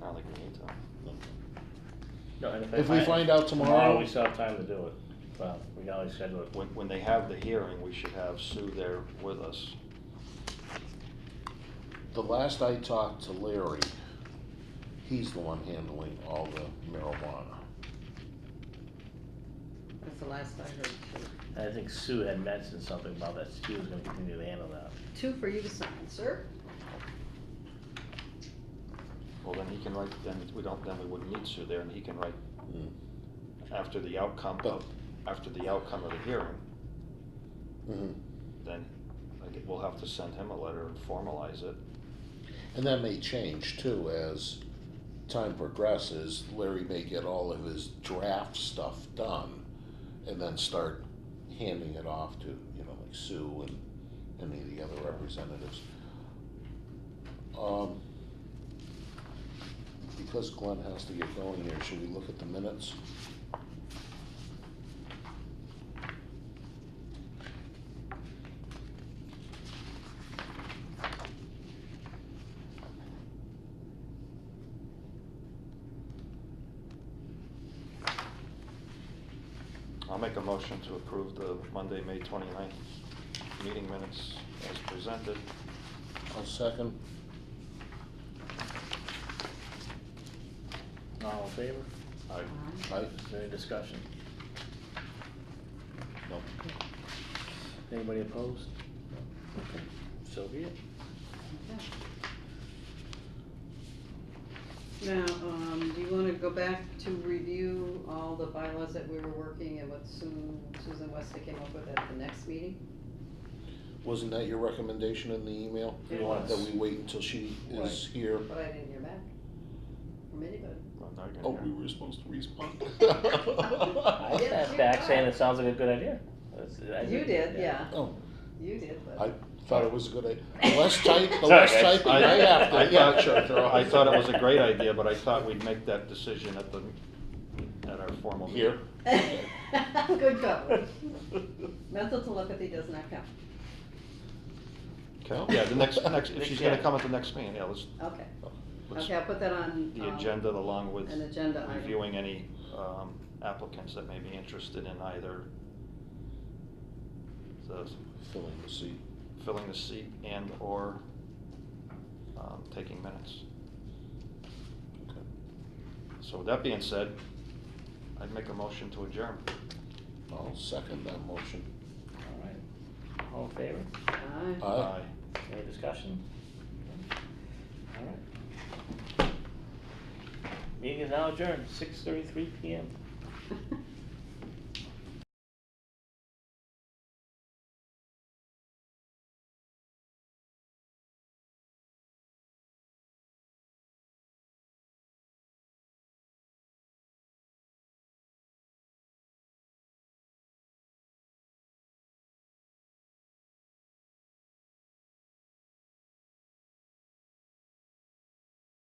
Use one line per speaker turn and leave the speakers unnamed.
not like we need to.
No, and
If we
I-
find out tomorrow-
we still have time to do it. Well, we can always schedule it.
When, when they have the hearing, we should have Sue there with us.
The last I talked to Larry, he's the one handling all the marijuana.
That's the last I heard, too.
I think Sue had mentioned something about that. She was gonna continue to handle that.
Two for you to sign, sir.
Well, then he can write, then we don't, then we wouldn't need Sue there, and he can write
Mm.
after the outcome of, after the outcome of the hearing,
Mhm.
then like, we'll have to send him a letter and formalize it.
And that may change too as time progresses. Larry may get all of his draft stuff done and then start handing it off to, you know, like Sue and any of the other representatives. Um, because Glenn has to get going here, should we look at the minutes?
I'll make a motion to approve the Monday, May 29th meeting minutes as presented.
I'll second.
All in favor?
I,
I,
Is there any discussion?
no,
Anybody opposed?
okay.
So be it.
Now, um, do you wanna go back to review all the bylaws that we were working and what Susan, Susan Westa came up with at the next meeting?
Wasn't that your recommendation in the email?
It
was.
That we wait until she
Right.
is here?
But I didn't hear back from anybody.
I'm not
Oh,
gonna
we
hear.
were supposed to respond.
I
Yeah,
sat
you
back
are.
saying it sounds like a good idea. That's- I
You
think-
did, yeah,
Oh,
you did, but.
I thought it was a good idea. The less type, the
Sorry,
less
guys.
typing I have
I
to, yeah,
thought-
sure, throw
I
it.
thought it was a great idea, but I thought we'd make that decision at the, at our formal meeting.
Here,
Good job. Mental telepathy does not count.
Okay, yeah, the next, next, if
Next,
she's gonna
yeah.
come at the next meeting, yeah, let's,
Okay,
let's,
okay, I'll put that on.
the
um,
agenda along with
An agenda item.
reviewing any um, applicants that may be interested in either the
filling the seat.
filling the seat and/or um, taking minutes.
Okay.
So with that being said, I'd make a motion to adjourn.
I'll second that motion.
All right. All in favor?
Aye.
Aye.
Any discussion? All right. Meeting is now adjourned, six thirty-three PM.
Aye.
Uh,